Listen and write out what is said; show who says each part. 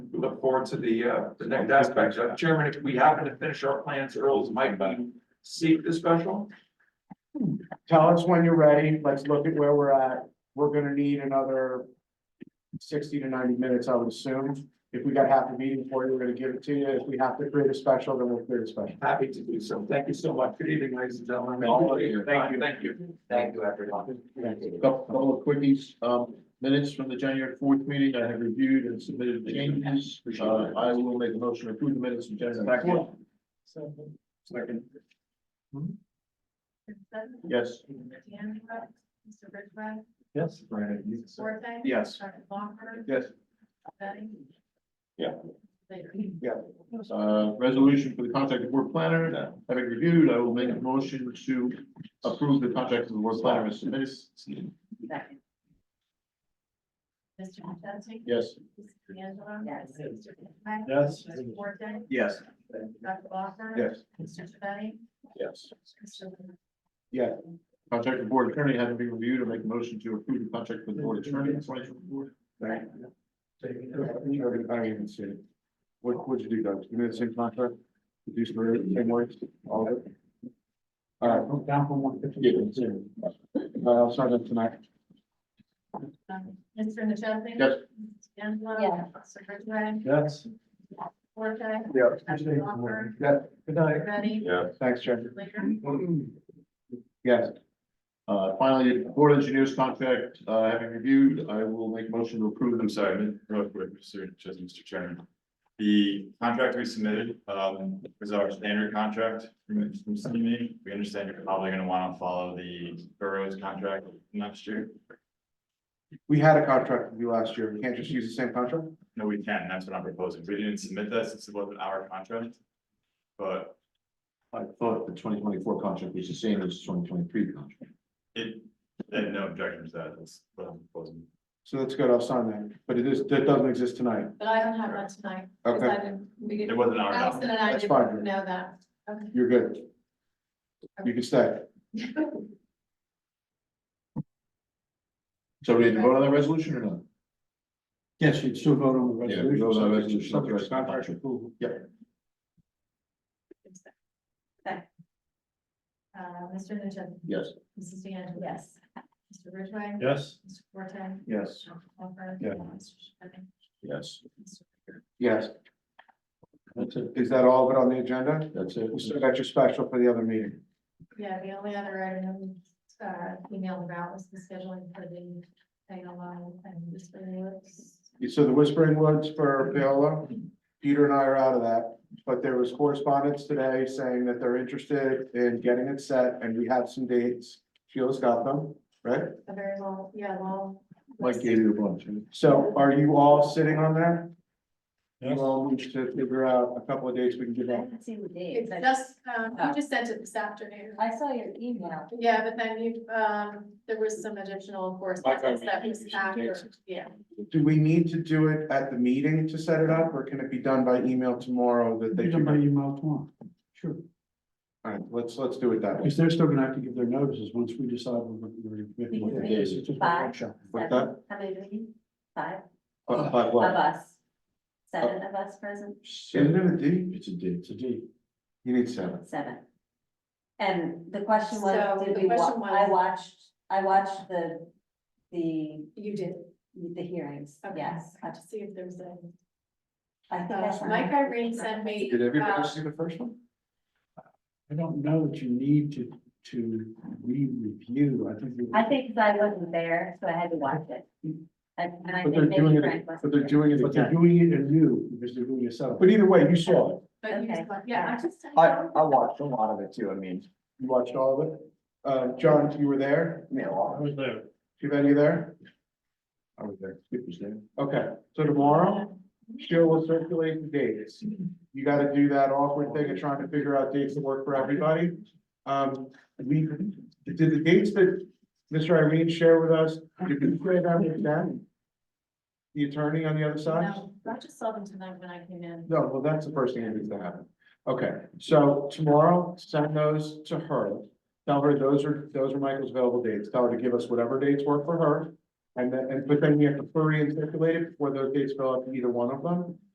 Speaker 1: look forward to the, uh, the next aspect. Uh, Chairman, if we happen to finish our plans early, might we seek the special?
Speaker 2: Tell us when you're ready. Let's look at where we're at. We're gonna need another sixty to ninety minutes, I would assume. If we got half the meeting for you, we're gonna give it to you. If we have to create a special, then we'll create a special.
Speaker 1: Happy to do so. Thank you so much. Good evening, ladies and gentlemen.
Speaker 2: Thank you.
Speaker 1: Thank you. Thank you.
Speaker 3: Thank you, everyone.
Speaker 4: Couple couple of quickies, um, minutes from the January fourth meeting, I have reviewed and submitted changes. Uh, I will make a motion to approve the minutes from January fourth.
Speaker 1: Second.
Speaker 5: Mr. Sutton?
Speaker 4: Yes,
Speaker 5: Mr. D'Angelo? Mr. Ridgeway?
Speaker 1: Yes.
Speaker 5: Forte?
Speaker 2: Yes.
Speaker 5: Dr. Bonner?
Speaker 4: yes.
Speaker 5: Betty?
Speaker 1: Yeah.
Speaker 5: Later.
Speaker 4: Uh, resolution for the contract of board planner, having reviewed, I will make a motion to approve the contract of the board planner as submitted.
Speaker 5: Second. Mr. Duffy?
Speaker 4: Yes,
Speaker 5: Mr. D'Angelo?
Speaker 6: Yes.
Speaker 5: Mr. Ridgeway?
Speaker 1: Yes.
Speaker 5: Mr. Forte?
Speaker 2: Yes.
Speaker 5: Dr. Bonner?
Speaker 4: yes.
Speaker 5: Mr. Betty?
Speaker 4: Yes.
Speaker 5: Mr. Ridgeway?
Speaker 4: Contract of board attorney, having been reviewed, I make a motion to approve the contract with the board attorney. Twenty twenty-four.
Speaker 2: I don't even see it. What, what'd you do, Doug? You made the same contract? Did you swear it the same words? All of it? All right. Down from one fifty. I'll start it tonight.
Speaker 5: Um, Mr. Duffy?
Speaker 4: Yes.
Speaker 5: Mr. D'Angelo?
Speaker 6: Yeah.
Speaker 5: Mr. Ridgeway?
Speaker 2: Yes.
Speaker 5: Forte? Dr. Bonner?
Speaker 2: Yeah, good night.
Speaker 5: Betty?
Speaker 4: Yeah.
Speaker 2: Thanks, Chair.
Speaker 5: Later.
Speaker 2: Yes.
Speaker 4: Uh, finally, board engineers contract, uh, having reviewed, I will make motion to approve them.
Speaker 7: I'm sorry, mi- real quick, Mr. just Mr. Chairman. The contract we submitted, um, was our standard contract from, from CME. We understand you're probably gonna wanna follow the borough's contract next year.
Speaker 2: We had a contract with you last year. We can't just use the same contract?
Speaker 7: No, we can, that's what I'm proposing. We didn't submit that since it wasn't our contract. But
Speaker 4: I thought the twenty twenty-four contract was the same as twenty twenty-three contract.
Speaker 7: it, and no objections to that, that's what I'm proposing.
Speaker 2: So that's good. I'll sign that. But it is, that doesn't exist tonight.
Speaker 5: But I don't have that tonight. 'cause I
Speaker 2: Okay,
Speaker 5: didn't- we
Speaker 7: It
Speaker 5: didn't-
Speaker 7: wasn't our
Speaker 5: Allison
Speaker 7: document.
Speaker 5: and I
Speaker 2: That's fine.
Speaker 5: didn't know that. Okay.
Speaker 2: you're good. You can stay.
Speaker 4: So we need to vote on that resolution or not?
Speaker 2: Yes, you still vote on
Speaker 4: Yeah, we vote on the resolution, not the rest of the contract.
Speaker 2: Yeah.
Speaker 5: Uh, Mr. Nugent,
Speaker 4: Yes.
Speaker 5: Mrs. DeAngelo.
Speaker 6: Yes.
Speaker 5: Mr. Ridgway.
Speaker 1: Yes.
Speaker 5: Mr. Forte.
Speaker 4: Yes.
Speaker 5: Dr. Walker.
Speaker 2: Yeah.
Speaker 5: Mr. Sherman.
Speaker 4: Yes.
Speaker 5: Mr.
Speaker 2: Yes.
Speaker 4: That's it.
Speaker 2: Is that all of it on the agenda?
Speaker 4: That's it.
Speaker 2: We still got your special for the other meeting.
Speaker 5: Yeah, the only other item, uh, emailed about was the scheduling for the thing alone and this was.
Speaker 2: So the Whispering Woods for Paola, Peter and I are out of that. But there was correspondence today saying that they're interested in getting it set and we have some dates. Sheila's got them, right?
Speaker 5: A very long, yeah, long.
Speaker 4: Mike gave you a bunch. right?
Speaker 2: So are you all sitting on that? You all need to figure out a couple of dates we can
Speaker 6: I
Speaker 2: give out.
Speaker 6: haven't seen the date,
Speaker 5: It's
Speaker 6: but
Speaker 5: just, um, you just sent it this afternoon.
Speaker 6: I saw your email.
Speaker 5: Yeah, but then you, um, there was some additional correspondence that was after, yeah.
Speaker 2: Do we need to do it at the meeting to set it up, or can it be done by email tomorrow that they? Done by email tomorrow, sure. All right, let's, let's do it that way.
Speaker 8: Because they're still gonna have to give their notices once we decide we're gonna.
Speaker 6: We
Speaker 8: we're
Speaker 6: can
Speaker 8: gonna-
Speaker 6: make
Speaker 4: days,
Speaker 8: It's just a
Speaker 6: five,
Speaker 8: workshop.
Speaker 2: What's
Speaker 6: seven.
Speaker 2: that?
Speaker 6: How many do we need? Five
Speaker 2: But, but
Speaker 6: of
Speaker 2: what?
Speaker 6: us. Seven of us present,
Speaker 2: Isn't it a D?
Speaker 4: It's a date.
Speaker 8: It's a D.
Speaker 2: You need seven.
Speaker 6: seven. And the question
Speaker 5: So,
Speaker 6: was, did
Speaker 5: the
Speaker 6: we, wa-
Speaker 5: question was-
Speaker 6: I watched, I watched the, the,
Speaker 5: You did.
Speaker 6: the hearings,
Speaker 5: Okay.
Speaker 6: yes. I
Speaker 5: Have to see if there's a,
Speaker 6: I think I
Speaker 5: so
Speaker 6: signed
Speaker 5: Mike
Speaker 6: up.
Speaker 5: Irene sent me.
Speaker 2: Did
Speaker 5: uh,
Speaker 2: everybody see the first one?
Speaker 8: I don't know that you need to, to re-review, I think. you-
Speaker 6: I think 'cause I wasn't there, so I had to watch it. And and
Speaker 2: But
Speaker 6: I think
Speaker 2: they're doing
Speaker 6: maybe
Speaker 2: it,
Speaker 6: Frank
Speaker 2: but
Speaker 6: wasn't
Speaker 2: they're
Speaker 6: there.
Speaker 2: doing it
Speaker 8: But they're
Speaker 2: again.
Speaker 8: doing it anew, because they're doing it so.
Speaker 2: But either way, you saw it.
Speaker 5: But you
Speaker 6: Okay.
Speaker 5: just, like, yeah, I just.
Speaker 3: I, I watched a lot of it too, I mean,
Speaker 2: You watched all of it. Uh, John, you were there?
Speaker 3: I mean, a lot.
Speaker 8: was there.
Speaker 2: Shiva, you there?
Speaker 4: I was there. Skip was there.
Speaker 2: Okay, so tomorrow? Sheila will circulate the dates. You gotta do that awkward thing of trying to figure out dates that work for everybody. Um, we, did the dates that Mr. Irene shared with us, did we create that with them? The attorney on the other side?
Speaker 5: No, I just saw them tonight when I came in.
Speaker 2: No, well, that's the first thing that needs to happen. Okay, so tomorrow, send those to her. Tell her those are, those are Michael's available dates. Tell her to give us whatever dates work for her. And then, and but then we have to query and circulate it before those dates fill out to either one of them.